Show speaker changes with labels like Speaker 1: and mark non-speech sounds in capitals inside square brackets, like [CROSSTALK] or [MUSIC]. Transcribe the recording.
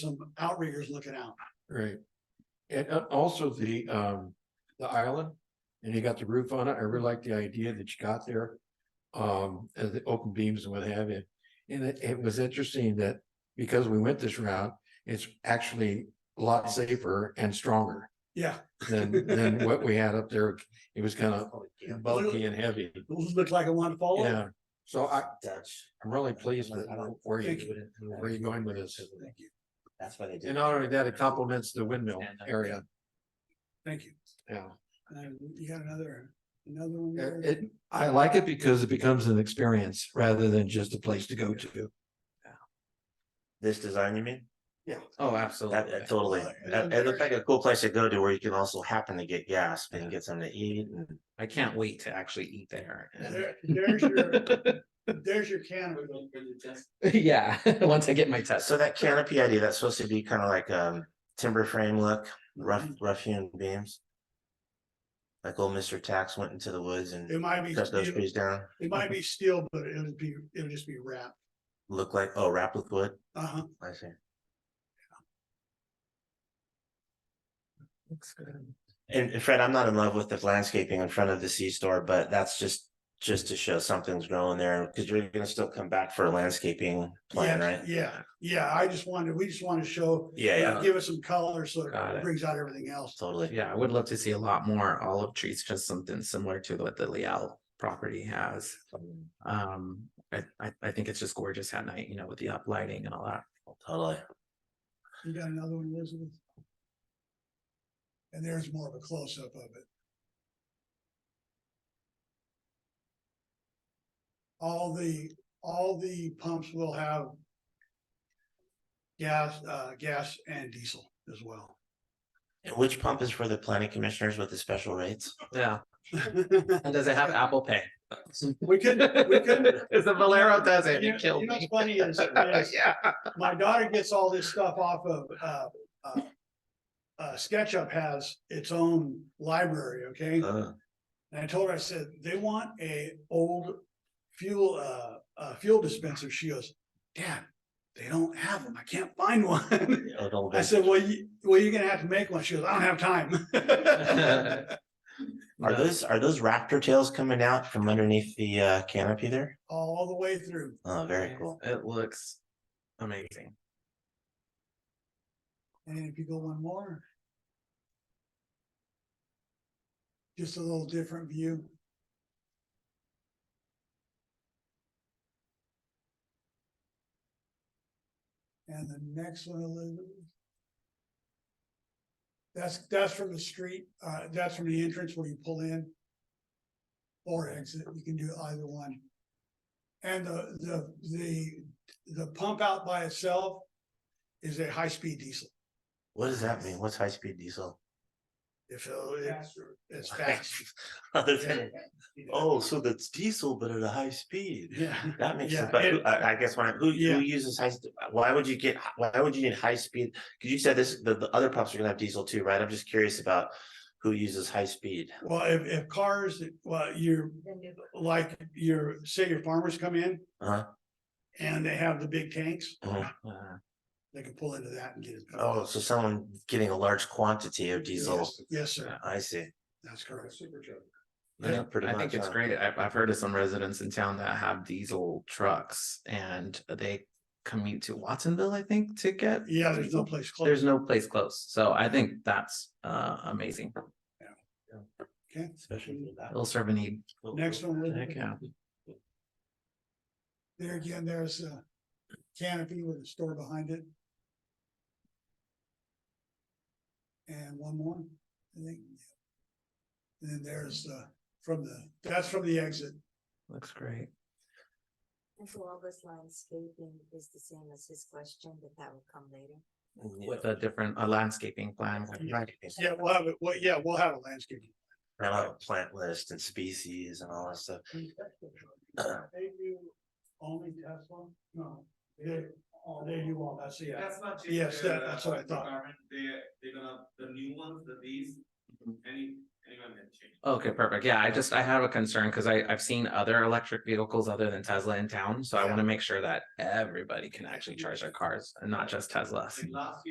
Speaker 1: some outriggers looking out.
Speaker 2: Right. And uh, also the um, the island, and you got the roof on it. I really like the idea that you got there. Um, and the open beams and what have you. And it, it was interesting that because we went this route, it's actually a lot safer and stronger
Speaker 1: Yeah,
Speaker 2: than, than what we had up there. It was kind of bulky and heavy.
Speaker 1: those look like I want to follow.
Speaker 2: Yeah. So I,
Speaker 3: That's.
Speaker 2: I'm really pleased with where
Speaker 1: Thank
Speaker 2: you, where are you going with this?
Speaker 3: That's why they did.
Speaker 2: and not only that, it complements the windmill area.
Speaker 1: Thank you.
Speaker 2: Yeah.
Speaker 1: Uh, you got another, another one
Speaker 2: Yeah,
Speaker 1: there?
Speaker 2: It, I like it because it becomes an experience rather than just a place to go to.
Speaker 3: This design, you mean?
Speaker 2: Yeah. Oh,
Speaker 3: That,
Speaker 2: absolutely.
Speaker 3: that totally, that, it looked like a cool place to go to where you can also happen to get gas and get something to eat and.
Speaker 4: I can't wait to actually eat there.
Speaker 1: There- There's
Speaker 4: [LAUGHS]
Speaker 1: your, there's your canopy.
Speaker 4: Yeah, [LAUGHS] once I get my test.
Speaker 3: So that canopy idea, that's supposed to be kind of like, um, timber frame look, rough,
Speaker 2: Mm-hmm.
Speaker 3: rough hewn beams. Like old Mr. Tax went into the woods
Speaker 1: It
Speaker 3: and
Speaker 1: might be,
Speaker 3: cut those
Speaker 1: it
Speaker 3: trees down,
Speaker 1: might be steel, but it'll be, it'll just be wrapped.
Speaker 3: look like, oh, wrapped with wood,
Speaker 1: Uh huh.
Speaker 3: I see.
Speaker 4: Looks good.
Speaker 3: And and Fred, I'm not in love with the landscaping in front of the C store, but that's just, just to show something's growing there, because you're gonna still come back for a landscaping plan, right?
Speaker 1: Yeah, yeah. I just wanted, we just want to show,
Speaker 3: Yeah, yeah,
Speaker 1: give it some color so
Speaker 4: Got
Speaker 1: it
Speaker 4: it.
Speaker 1: brings out everything else.
Speaker 3: Uh, totally.
Speaker 4: Yeah, I would love to see a lot more olive trees, just something similar to what the Leal property has. Um, I, I, I think it's just gorgeous at night, you know, with the up lighting and all that.
Speaker 3: Totally.
Speaker 1: You got another one, Elizabeth? And there's more of a close up of it. All the, all the pumps will have gas, uh, gas and diesel as well. [LAUGHS]
Speaker 3: And which pump is for the planning commissioners with the special rates?
Speaker 4: Yeah, and does it have Apple Pay?
Speaker 1: We couldn't, we
Speaker 4: [LAUGHS]
Speaker 1: couldn't.
Speaker 4: If the Valero does it,
Speaker 1: You
Speaker 4: it
Speaker 1: know,
Speaker 4: killed
Speaker 1: you know uh, what's
Speaker 4: me.
Speaker 1: funny is, is
Speaker 4: [LAUGHS] Yeah.
Speaker 1: my daughter gets all this stuff off of, uh, uh, uh, SketchUp has its own library, okay?
Speaker 3: Oh,
Speaker 1: And I told her, I said, they want a old fuel, uh, uh, fuel dispenser. She goes, Dad, they don't have them. I can't find one. [LAUGHS]
Speaker 3: oh, don't
Speaker 1: I
Speaker 3: be-
Speaker 1: said, well, you, well, you're gonna have to make one. She goes, I don't have time. [LAUGHS]
Speaker 3: Are
Speaker 1: uh,
Speaker 3: those, are those raptor tails coming out from underneath the uh canopy there?
Speaker 1: All the way through.
Speaker 3: Oh, very cool.
Speaker 4: It looks amazing.
Speaker 1: And if you go one more. Just a little different view. And the next one, Elizabeth. That's, that's from the street, uh, that's from the entrance where you pull in. Or exit, you can do either one. And the, the, the, the pump out by itself is a high-speed diesel.
Speaker 3: What does that mean? What's high speed diesel?
Speaker 1: If it- it's, it's
Speaker 3: [LAUGHS]
Speaker 1: fast.
Speaker 3: Other than, oh, so that's diesel, but at a high speed.
Speaker 1: Yeah,
Speaker 3: That makes
Speaker 1: Yeah,
Speaker 3: sense, but who-
Speaker 1: it-
Speaker 3: I, I guess when, I- who,
Speaker 1: Yeah.
Speaker 3: who uses high, st- why would you get, h- why would you need high speed? Cause you said this, the, the other pumps are gonna have diesel too, right? I'm just curious about who uses high speed.
Speaker 1: well, if, if cars, well, you're, like, your, say your farmers come in.
Speaker 3: Uh-huh.
Speaker 1: And they have the big tanks,
Speaker 3: Mhm.
Speaker 4: Uh,
Speaker 1: they can pull into that and get it.
Speaker 3: Oh, so someone getting a large quantity of diesel.
Speaker 1: Yes, Yes, sir,
Speaker 3: I see.
Speaker 1: that's correct.
Speaker 4: I
Speaker 3: Yeah,
Speaker 4: think-
Speaker 3: pretty
Speaker 4: I think
Speaker 3: much,
Speaker 4: it's
Speaker 3: huh?
Speaker 4: great. I've, I've heard of some residents in town that have diesel trucks and they commute to Watsonville, I think, to get.
Speaker 1: Yeah, there's no place
Speaker 4: There's
Speaker 1: close.
Speaker 4: no place close. So I think that's, uh, amazing.
Speaker 1: Okay,
Speaker 3: Especially for that.
Speaker 4: It'll serve a need.
Speaker 1: next one,
Speaker 4: Heck
Speaker 1: Elizabeth.
Speaker 4: yeah.
Speaker 1: there again, there's a canopy with a store behind it. And one more, I think. And then there's, uh, from the, that's from the exit.
Speaker 4: Looks great.
Speaker 5: And so all this landscaping is the same as his question, but that will come later.
Speaker 4: With a different, a landscaping plan.
Speaker 3: Right.
Speaker 1: Yeah, we'll have it, well, yeah, we'll have a landscaping.
Speaker 3: And I'll have a plant list and species and all that stuff.
Speaker 1: They do only Tesla? No, they, oh, they do all that, so yeah.
Speaker 6: That's not.
Speaker 1: Yes,
Speaker 6: changed,
Speaker 1: that-
Speaker 6: uh,
Speaker 1: that's what I thought. Mm-hmm.
Speaker 6: requirement. They, they're gonna, the new ones, the these, any,
Speaker 4: Okay, perfect. Yeah, I just, I have a concern because I, I've seen other electric vehicles other than Tesla in town. So I want to make sure that everybody can actually charge their cars and not just Teslas.